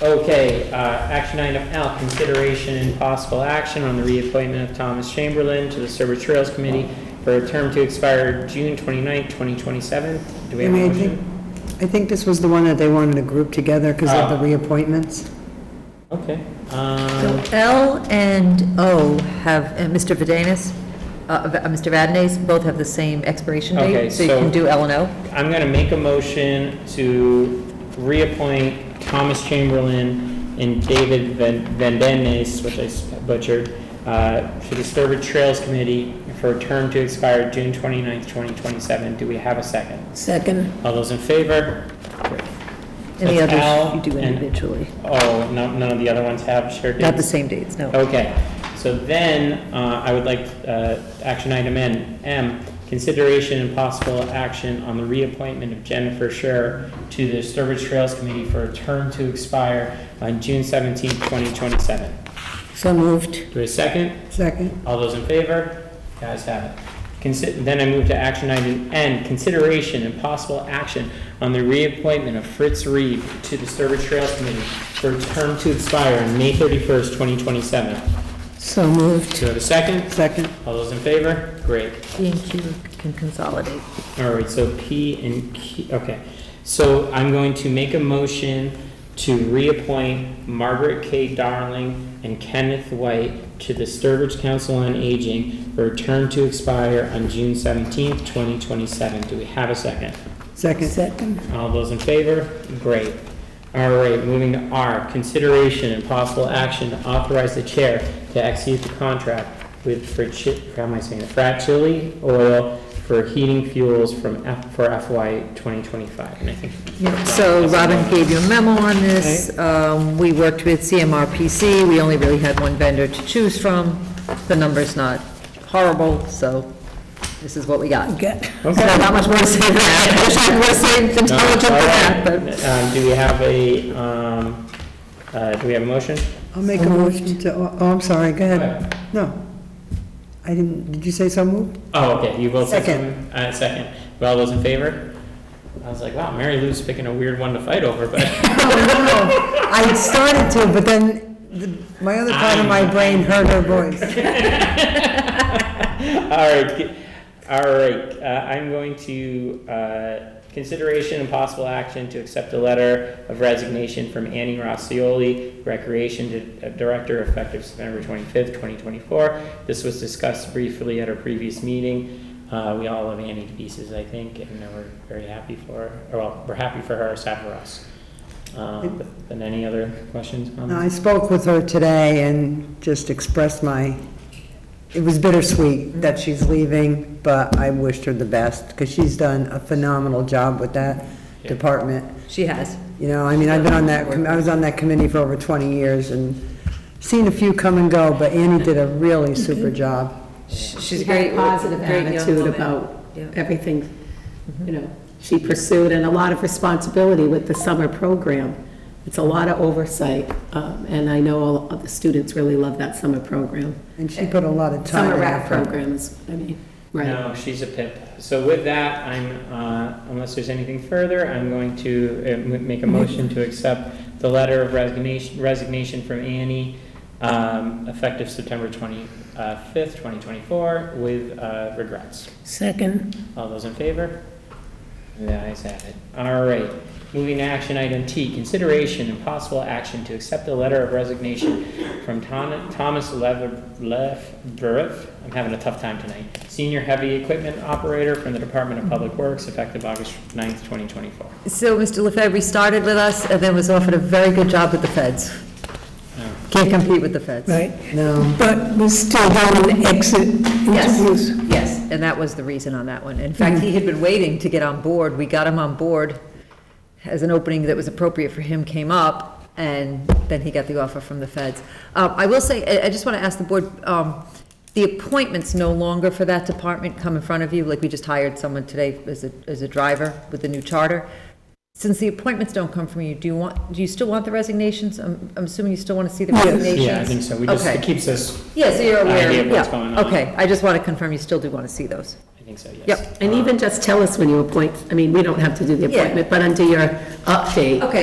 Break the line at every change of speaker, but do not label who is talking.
Okay, uh, action item L, consideration and possible action on the reappointment of Thomas Chamberlain to the Serber Trails Committee for a term to expire June 29, 2027. Do we
I
have a
mean, I think,
motion?
I think this was the one Ah. that they wanted to group together because of the reappointments.
Okay.
So
um,
L and O have, and Mr. Vadenas, uh, uh, Mr. Vadenas, both have the same expiration
Okay,
date, so you
so-
can do L and O.
I'm going to make a motion to reappoint Thomas Chamberlain and David Van Van Dennis, which I s- butchered, uh, to the Serber Trails Committee for a term to expire June 29, 2027. Do we have a second?
Second.
All those in favor?
And the
That's L
others you do
and-
individually,
Oh, no, none of the other ones have shared
not the
dates?
same dates, no.
Okay, so then, uh, I would like, uh, action item N, M, consideration and possible action on the reappointment of Jennifer Scherer to the Sturbridge Trails Committee for a term to expire on June seventeenth, twenty twenty-seven.
So moved.
Do we have a second?
Second?
All those in favor? Guys have it. Consi- Then I move to action item N, consideration and possible action on the reappointment of Fritz Reed to the Sturbridge Trails Committee for a term to expire on May 31st, 2027.
So moved.
Do I have a second?
Second.
All those in favor? Great.
B and Q can consolidate.
All right, so P and Q, okay. So I'm going to make a motion to reappoint Margaret K. Darling and Kenneth White to the Sturbridge Council on Aging for a term to expire on June seventeenth, twenty twenty-seven. Do we have a second?
Second.
Second.
All those in favor? Great. All right, moving to R, consideration and possible action to authorize the chair to execute the contract with, for, how am I saying it? Fratelli Oil for heating fuels from F, for FY 2025. And I think
So Robin gave you a memo on this. Um, We worked with CMRPC. We only really had one vendor to choose from. The number's not horrible, so this is what we got. Okay. Not
Okay.
that much more to say than that. I wish I had more to say intelligent
No,
than that,
all
but
right. Um, do we have a, um, uh, do we have a motion?
I'll make a motion to, oh, I'm sorry, go ahead. No. I didn't, did you say so moved?
Oh, okay, you both said
Second.
something? Uh, second. All those in favor? I was like, wow, Mary Lou's picking a weird one to fight over, but.
No, no, I started to, but then the- my other part of my brain heard her voice.
All right, g- all right, uh, I'm going to, uh, consideration and possible action to accept a letter of resignation from Annie Rossioli, Recreation Di- uh, Director, effective September twenty-fifth, twenty twenty-four. This was discussed briefly at our previous meeting. Uh, we all love Annie to pieces, I think, and we're very happy for, her. or well, we're happy for her, sad for us. Um, but- but any other questions?
No,
comments?
I spoke with her today and just expressed my, it was bittersweet that she's leaving, but I wished her the best, because she's done a phenomenal job with that
Yeah.
department.
she has.
You know, I mean, I've been on that, com- I was on that committee for over 20 years and seen a few come and go, but Annie did a really super job.
She's
She
a
had
great.
a positive
great young
attitude
woman.
about
Yeah. Mm-hmm.
everything, you know, she pursued, and a lot of responsibility with the summer program. It's a lot of oversight, um, and I know all of the students really love that summer program.
And she put a lot of time
Summer
and
rap
effort.
programs, I mean, right.
No, she's a pip. So with that, I'm, uh, unless there's anything further, I'm going to uh, m- make a motion to accept the letter of resignation, resignation from Annie, um, effective September uh, 25th, 2024, with uh, regrets.
Second.
All those in favor? The ayes have it. All right, moving to action item T, consideration and possible action to accept the letter of resignation from Ton- Thomas Lev- Lefberif, I'm having a tough time tonight, senior heavy equipment operator from the Department of Public Works, effective August 9th, 2024.
So Mr. Lefebvre started with us and then was offered a very good job with the feds.
Oh.
Can't compete with the feds.
Right,
No,
but was still down in exit
Yes,
interviews.
yes, and that was the reason on that one. In fact, he had been waiting to get on board. We got him on board as an opening that was appropriate for him came up, and then he got the offer from the feds. Uh, I will say, I, I just want to ask the board, um, the appointments no longer for that department come in front of you, like we just hired someone today as a, as a driver with the new charter. Since the appointments don't come from you, do you want, do you still want the resignations? I'm, I'm assuming you still want to see the
Yes.
resignations?
Yeah, I think so, we just,
Okay.
it keeps us,
Yeah, so you're aware,
idea of what's going
yeah,
on.
okay, I just want to confirm you still do want to see those.
I think so, yes.
Yep.
And even just tell us when you appoint, I mean, we don't have to do the
Yeah.
appointment, but under your update,
Okay,